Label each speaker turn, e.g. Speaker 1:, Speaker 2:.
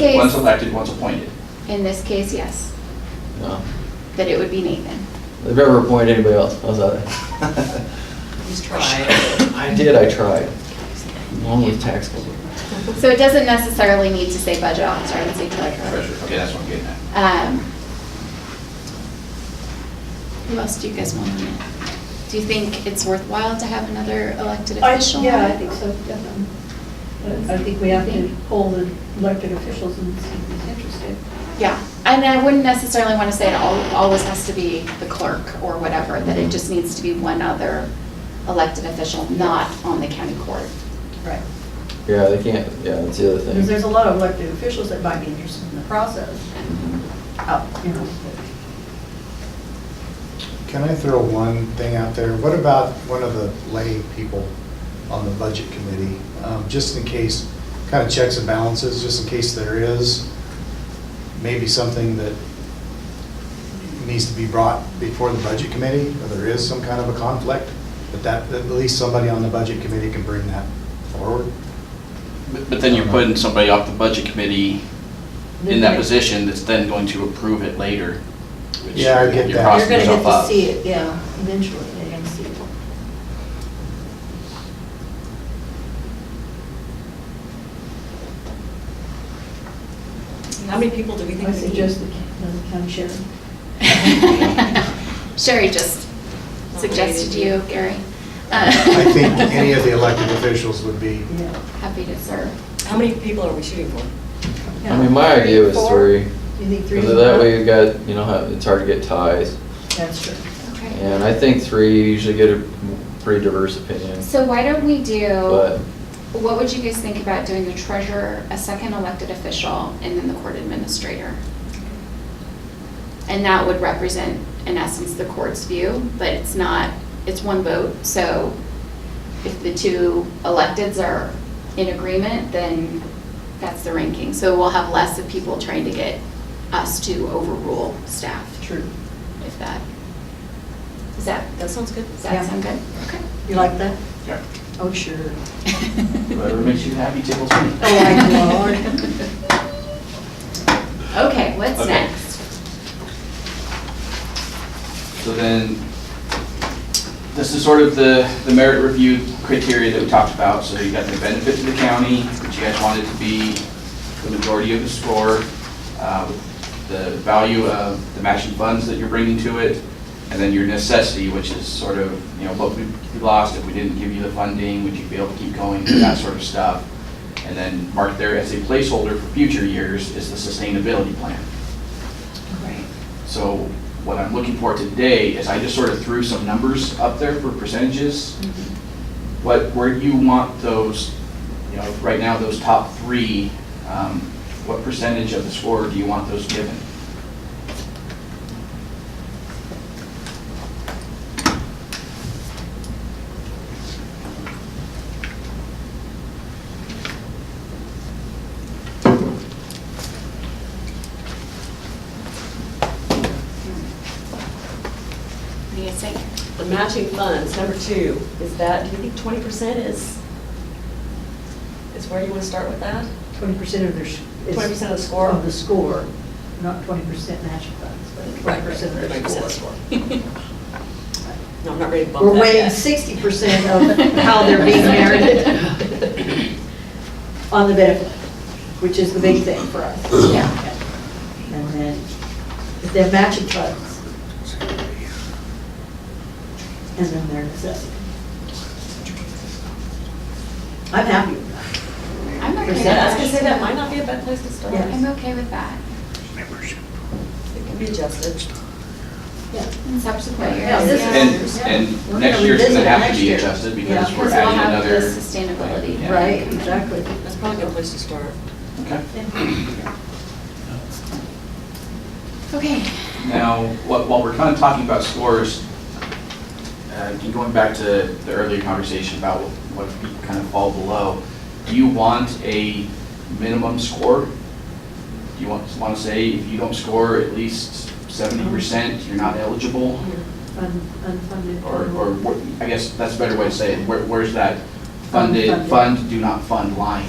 Speaker 1: One's
Speaker 2: case,
Speaker 1: elected, one's appointed.
Speaker 2: in this case, yes,
Speaker 3: No.
Speaker 2: that it would be Nathan.
Speaker 3: They've never appointed anybody else, how's that?
Speaker 4: He's tried.
Speaker 3: I did, I tried. Along with tax collector.
Speaker 2: So it doesn't necessarily need to say budget officer, I would say treasurer.
Speaker 1: Treasurer, okay, that's what I'm getting at.
Speaker 2: Um, Who else do you guys want on it? Do you think it's worthwhile to have another elected
Speaker 5: I,
Speaker 2: official? on
Speaker 5: yeah, I
Speaker 2: it?
Speaker 5: think so, definitely. I- I think we have to poll the elected officials and see who's interested.
Speaker 2: Yeah, and I wouldn't necessarily want to say it al- always has to be the clerk or whatever, that it just needs to be one other elected official, not on the county court.
Speaker 5: Right.
Speaker 3: Yeah, they can't, yeah, that's the other
Speaker 5: Because there's
Speaker 3: thing.
Speaker 5: a lot of elected officials that might be interested in the process, out, you know.
Speaker 6: Can I throw one thing out there? What about one of the lay people on the budget committee? Um, Just in case, kind of checks and balances, just in case there is maybe something that needs to be brought before the budget committee, or there is some kind of a conflict, but that, that at least somebody on the budget committee can bring that forward.
Speaker 1: But- But then you're putting somebody off the budget committee in that position that's then going to approve it later. which
Speaker 6: Yeah, I get
Speaker 1: you're
Speaker 6: that.
Speaker 1: crossing
Speaker 6: You're
Speaker 1: yourself up.
Speaker 5: it, yeah, eventually, you're gonna see it.
Speaker 4: How many people do we think
Speaker 5: I
Speaker 4: we need?
Speaker 5: suggest the ca- the county sheriff.
Speaker 2: Sherry just suggested you, Gary.
Speaker 6: I think any of the elected officials would be,
Speaker 5: Yeah.
Speaker 2: Happy to serve.
Speaker 4: How many people are we shooting for?
Speaker 3: I mean, my idea was
Speaker 5: Four?
Speaker 3: three,
Speaker 5: You think three?
Speaker 3: because
Speaker 5: is
Speaker 3: that
Speaker 5: enough?
Speaker 3: way you got, you know, how- it's hard to get ties.
Speaker 5: That's true.
Speaker 2: Okay.
Speaker 3: And I think three, you usually get a pretty diverse opinion,
Speaker 2: So why don't we do,
Speaker 3: but
Speaker 2: what would you guys think about doing the treasurer, a second elected official, and then the court administrator? And that would represent, in essence, the court's view, but it's not, it's one vote, so if the two electeds are in agreement, then that's the ranking. So we'll have less of people trying to get us to overrule staff,
Speaker 5: True.
Speaker 2: if that, is that,
Speaker 4: That sounds good.
Speaker 2: does that
Speaker 5: Yeah.
Speaker 2: sound good?
Speaker 5: You like that?
Speaker 1: Yeah.
Speaker 5: Oh, sure.
Speaker 1: Whoever makes you happy tickles me.
Speaker 5: Oh, my Lord.
Speaker 2: Okay, what's
Speaker 1: Okay.
Speaker 2: next?
Speaker 1: So then, this is sort of the, the merit review criteria that we talked about. So you got the benefit to the county, which you guys wanted to be the majority of the score, uh, the value of the matching funds that you're bringing to it, and then your necessity, which is sort of, you know, what would be lost if we didn't give you the funding, would you be able to keep going, that sort of stuff. And then marked there as a placeholder for future years is the sustainability plan.
Speaker 2: Right.
Speaker 1: So what I'm looking for today is I just sort of threw some numbers up there for percentages. What, where you want those, you know, right now, those top three, um, what percentage of the score do you want those given?
Speaker 2: What do you guys think?
Speaker 4: The matching funds, number two, is that, do you think twenty percent is, is where you want to start with that?
Speaker 5: Twenty percent of their. sh- is-
Speaker 4: 20% of the score?
Speaker 5: Of the score, not twenty percent matching funds, but twenty percent of
Speaker 4: Twenty
Speaker 5: their
Speaker 4: percent
Speaker 5: score.
Speaker 4: No, I'm not ready to bump that
Speaker 5: We're weighing
Speaker 4: yet.
Speaker 5: sixty percent of how they're being measured on the benefit, which is the big thing for us.
Speaker 2: Yeah.
Speaker 5: And then, if they're matching funds. And then their necessity. I'm happy with that.
Speaker 2: I'm okay with
Speaker 4: Yeah, I was gonna say, that
Speaker 2: that.
Speaker 4: might not be a bad place to start.
Speaker 5: Yeah.
Speaker 2: I'm okay with that.
Speaker 4: It can be adjusted.
Speaker 2: In subsequent years.
Speaker 5: Mm. Yeah, this is-
Speaker 1: And,
Speaker 5: Yeah. We're
Speaker 1: and next
Speaker 5: gonna
Speaker 1: year's gonna
Speaker 5: revisit it
Speaker 1: have to
Speaker 5: next
Speaker 1: be
Speaker 5: year.
Speaker 1: adjusted
Speaker 5: Yeah.
Speaker 1: because we're
Speaker 2: Because we'll
Speaker 1: adding
Speaker 2: have the
Speaker 1: another.
Speaker 2: sustainability.
Speaker 1: Yeah.
Speaker 5: Right, exactly.
Speaker 4: That's probably a good place to start.
Speaker 1: Okay.
Speaker 2: Okay.
Speaker 1: Now, wh- while we're kind of talking about scores, uh, and going back to the earlier conversation about what people kind of fall below, do you want a minimum score? Do you want, want to say if you don't score at least seventy percent, you're not eligible?
Speaker 5: Un- Unfunded.
Speaker 1: Or, or, wh- I guess that's a better way to say it, where, where's that funded,
Speaker 5: Unfunded.
Speaker 1: fund, do not fund line?